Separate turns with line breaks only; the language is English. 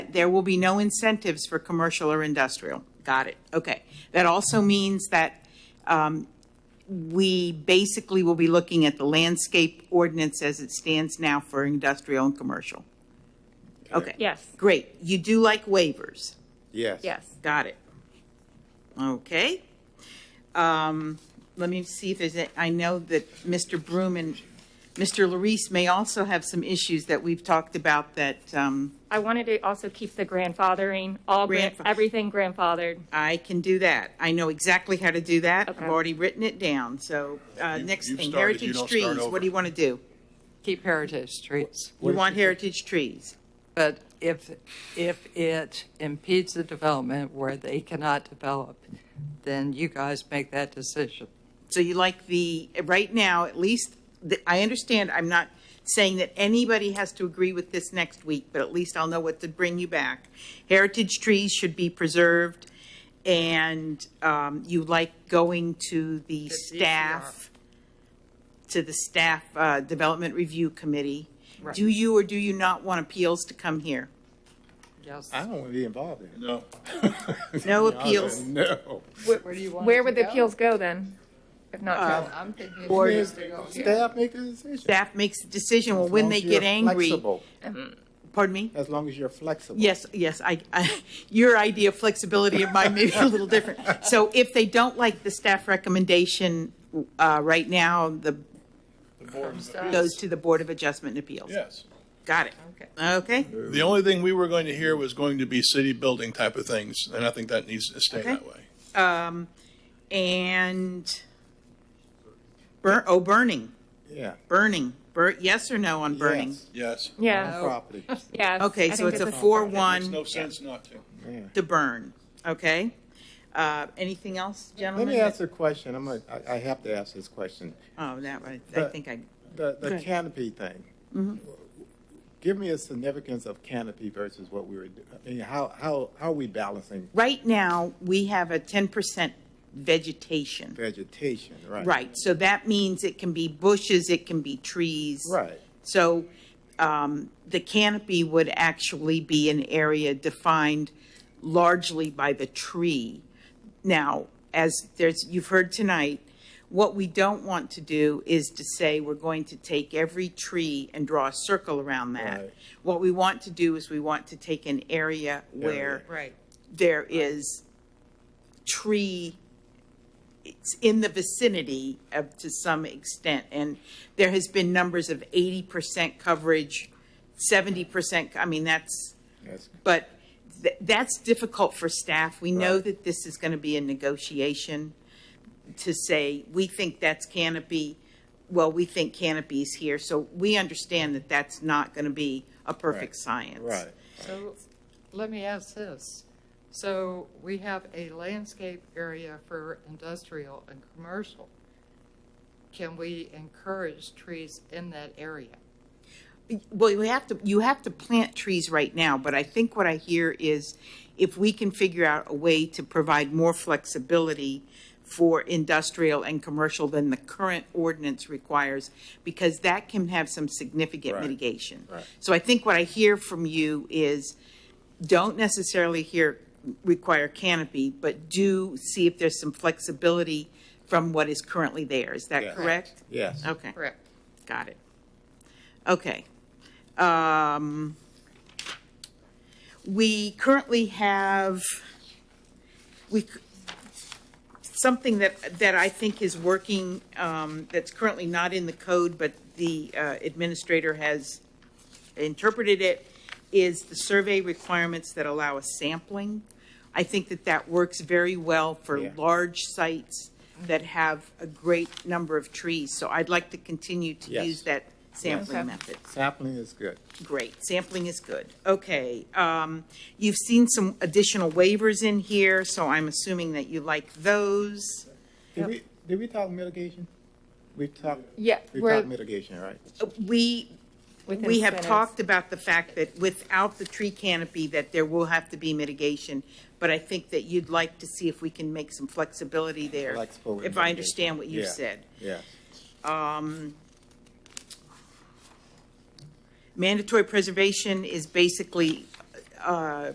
that there will be no incentives for commercial or industrial. Got it. Okay. That also means that um, we basically will be looking at the landscape ordinance as it stands now for industrial and commercial. Okay.
Yes.
Great. You do like waivers.
Yes.
Yes.
Got it. Okay. Um, let me see if there's, a- I know that Mr. Broom and Mr. Larice may also have some issues that we've talked about that, um,
I wanted to also keep the grandfathering, all, gran-
Grandfa-
everything grandfathered.
I can do that. I know exactly how to do that. I've
Okay.
already written it down. So, uh,
You-
next
you've
thing,
started, you
heritage
don't
trees.
start
What
over.
do you want to do?
keep heritage streets.
You want heritage trees?
But if, if it impedes the development where they cannot develop, then you guys make that decision.
So you like the, right now, at least, the- I understand, I'm not saying that anybody has to agree with this next week, but at least I'll know what to bring you back. Heritage trees should be preserved, and um, you like going to the staff, to the staff uh, development review committee. Do you or do you not want appeals to come here?
Yes.
I don't want to be involved in it.
No.
No appeals,
No.
Where do you want
Where
it
would
to
the
go?
appeals go then? If not,
Uh,
to-
I'm thinking.
Or-
it needs to go here.
Staff make the decision.
staff makes the decision, well,
As
when
long
they
as you're
get angry,
flexible,
pardon me?
As long as you're flexible.
Yes, yes, I, I, your idea of flexibility and mine may be a little different. So if they don't like the staff recommendation, uh, right now, the, goes to the Board of Adjustment and Appeals.
Yes.
Got it. Okay,
The only thing we were going to hear was going to be city building type of things, and I think that needs to stay that way.
um, and burn, oh, burning,
Yeah.
burning, bur, yes or no on burning? Oh.
Yes,
Yes.
uh,
yeah,
Property.
yeah.
Okay,
I
so
think
it's a
this is-
Makes no
four-one
sense not to.
to burn, okay? Uh, anything else,
Let
gentlemen?
me ask a question. I'm, a- I, I have to ask this question.
Oh, that, one, I
But-
think I,
The, the
Good. Mm-hmm.
canopy thing. Give me a significance of canopy versus what we were, do- I mean, how, how, how are we balancing
right now, we have a ten percent vegetation.
vegetation, right?
Right, so that means it can be bushes, it can be trees.
Right.
So um, the canopy would actually be an area defined largely by the tree. Now, as there's, you've heard tonight, what we don't want to do is to say we're going to take every tree and draw a circle around that.
Right.
What we want to do is we want to take an area where
Right.
there is tree, it's in the vicinity of, to some extent. And there has been numbers of eighty percent coverage, seventy percent, I mean, that's,
That's-
but th- that's difficult for staff. We know
Right.
that this is going to be a negotiation to say, we think that's canopy, well, we think canopy's here. So we understand that that's not going to be a perfect science.
Right.
So let me ask this. So we have a landscape area for industrial and commercial. Can we encourage trees in that area?
Well, you have to, you have to plant trees right now, but I think what I hear is if we can figure out a way to provide more flexibility for industrial and commercial than the current ordinance requires, because that can have some significant
Right.
mitigation.
Right.
So I think what I hear from you is don't necessarily here require canopy, but do see if there's some flexibility from what is currently there. Is that
Yeah.
correct?
Yes.
Okay.
Correct.
Got it. Okay. Um, We currently have, we, c- something that, that I think is working, um, that's currently not in the code, but the uh, administrator has interpreted it, is the survey requirements that allow a sampling. I think that that works very well for
Yeah.
large sites that have a great number of trees. So I'd like to continue to
Yes.
use that sampling
Okay.
method.
Sapling is good.
Great, sampling is good. Okay, um, you've seen some additional waivers in here, so I'm assuming that you like those.
Did we, did we talk mitigation? We talked,
Yeah,
we
we're
talked mitigation, right?
We,
within
we have
incentives.
talked about the fact that without the tree canopy, that there will have to be mitigation, but I think that you'd like to see if we can make some flexibility there.
Flexible with
If I
mitigation.
understand what you've
Yeah.
said.
Yes.
Mandatory preservation is basically uh,